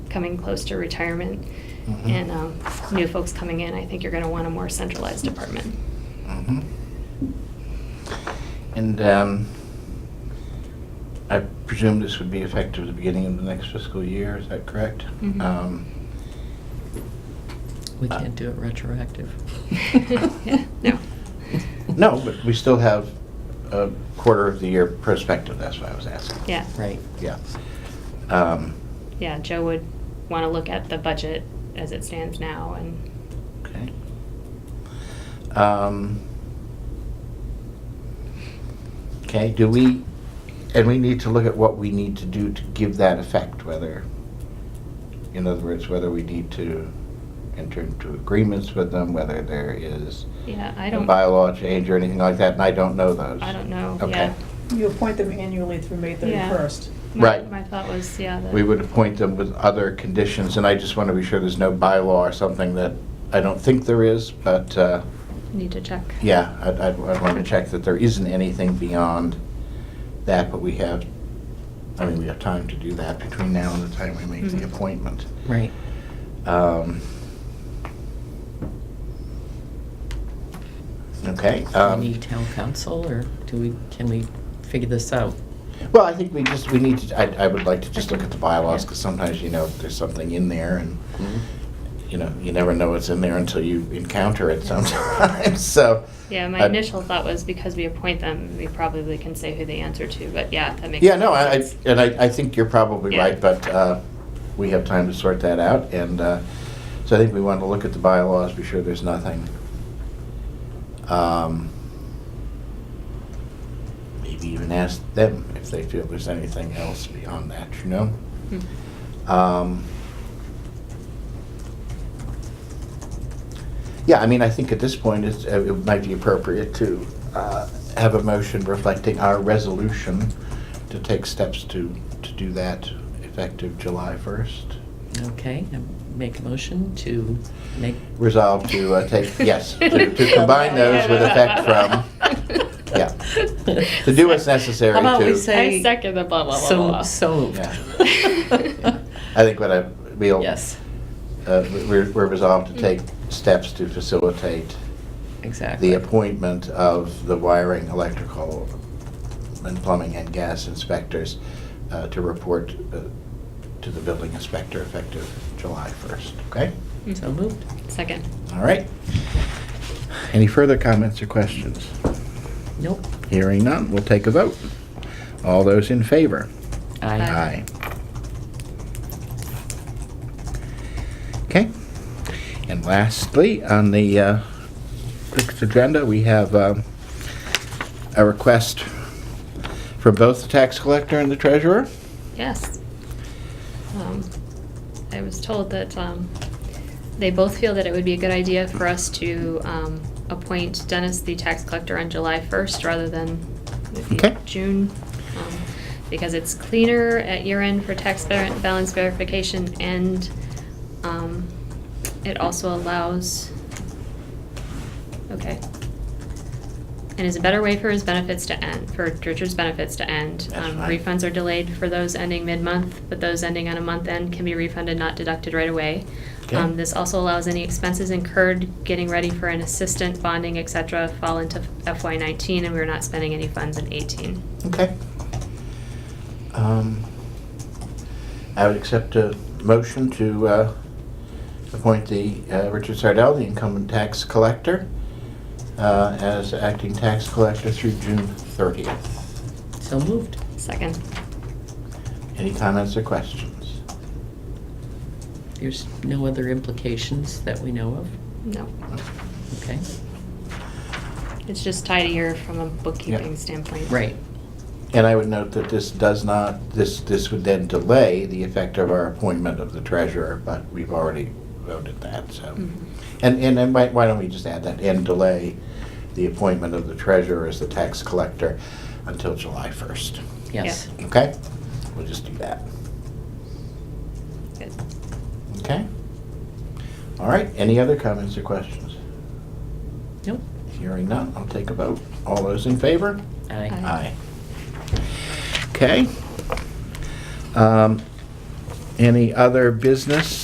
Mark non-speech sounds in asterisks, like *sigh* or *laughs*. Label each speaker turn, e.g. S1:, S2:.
S1: coming close to retirement
S2: Mhm.
S1: and um, new folks coming in, I think you're going to want a more centralized department. *laughs*
S2: Mhm. And um, I presume this would be effective the beginning of the next fiscal year, is that correct?
S1: Mhm.
S2: Um,
S3: We can't do it retroactive.
S1: Yeah, No.
S2: *laughs* No, but we still have a quarter of the year perspective, that's what I was asking.
S1: Yeah,
S3: Right.
S2: Yeah. Um,
S1: yeah, Joe would want to look at the budget as it stands now and,
S2: Okay. Um, Okay, do we, and we need to look at what we need to do to give that effect, whether, in other words, whether we need to enter into agreements with them, whether there is
S1: yeah, I
S2: a
S1: don't,
S2: bylaw change or anything like that, and I don't know those.
S1: I don't know,
S2: Okay.
S1: yeah.
S4: You appoint them annually through May
S1: Yeah.
S4: 31st.
S1: My-
S2: Right.
S1: My thought was, yeah, that.
S2: We would appoint them with other conditions, and I just want to be sure there's no bylaw or something that, I don't think there is, but, uh,
S1: Need to check.
S2: Yeah, I'd, I'd want to check that there isn't anything beyond that, but we have, I mean, we have time to do that between now and the time we make the
S1: Mhm.
S2: appointment.
S3: Right.
S2: Um, Okay. um,
S3: Any town council, or do we, can we figure this out?
S2: Well, I think we just, we need to, I, I would like to just look at the bylaws, because sometimes, you know, there's something in there, and, you know, you never know what's in there until you encounter it sometimes, *laughs* so.
S1: Yeah, my
S2: I-
S1: initial thought was because we appoint them, we probably can say who they answer to, but yeah, that makes.
S2: Yeah, no, I, I-
S1: sense.
S2: and I, I think you're probably
S1: Yeah.
S2: right, but uh, we have time to sort that out, and uh, so I think we want to look at the bylaws, be sure there's nothing. um, Maybe even ask them if they feel there's anything else beyond that, you know?
S1: Hmm.
S2: Um, Yeah, I mean, I think at this point, it's, uh, it might be appropriate to uh, have a motion reflecting our resolution to take steps to, to do that effective July 1st.
S3: Okay, I make a motion to make,
S2: Resolve to uh,
S3: *laughs*
S2: take, yes, to to combine those with effect from, yeah, to do
S3: *laughs*
S2: what's necessary
S3: How about we
S2: to,
S3: say-
S1: I second the blah, blah, blah, blah,
S3: so,
S1: blah.
S3: so moved.
S1: Yeah.
S2: I think what I, we'll,
S3: Yes, Mm.
S2: uh, we're we're resolved to take steps to facilitate the
S3: exactly.
S2: appointment of the wiring, electrical, and plumbing and gas inspectors uh, to report uh, to the building inspector effective July 1st, okay?
S3: So moved.
S1: Mm-hmm. Second.
S2: All right. Any further comments or questions?
S3: Nope.
S2: Hearing none, we'll take a vote. All those in favor?
S3: Aye.
S1: Aye.
S2: Okay. And lastly, on the uh, fixed agenda, we have um, a request from both the tax collector and the treasurer.
S1: Yes. Um, I was told that um, they both feel that it would be a good idea for us to um, appoint Dennis the tax collector on July 1st rather than maybe
S2: Okay.
S1: June. um, Because it's cleaner at year end for tax ver- balance verification and um, it also allows, okay. And is a better way for his benefits to end, for Richard's benefits to end.
S2: That's
S1: Um,
S2: fine.
S1: Refunds are delayed for those ending mid-month, but those ending on a month end can be refunded, not deducted right away.
S2: Okay.
S1: Um, This also allows any expenses incurred getting ready for an assistant, bonding, et cetera, fall into FY nineteen, and we're not spending any funds in eighteen.
S2: Okay. Um, I would accept a motion to uh, appoint the, uh, Richard Sardell, the incumbent tax collector, uh, as acting tax collector through June 30th.
S3: So moved.
S1: Second.
S2: Any comments or questions?
S3: There's no other implications that we know of?
S1: No,
S3: Okay,
S1: it's just tidier from a bookkeeping standpoint.
S3: right.
S2: And I would note that this does not, this, this would then delay the effect of our appointment of the treasurer, but we've already voted that, so.
S1: Mhm.
S2: And, and then why, why don't we just add that, and delay the appointment of the treasurer as the tax collector until July 1st,
S3: Yes.
S2: okay? We'll just do that,
S1: Good.
S2: okay? All right, any other comments or questions?
S3: Nope.
S2: Hearing none, I'll take a vote. All those in favor?
S3: Aye.
S1: Aye.
S2: Aye. Okay. Um, Any other business?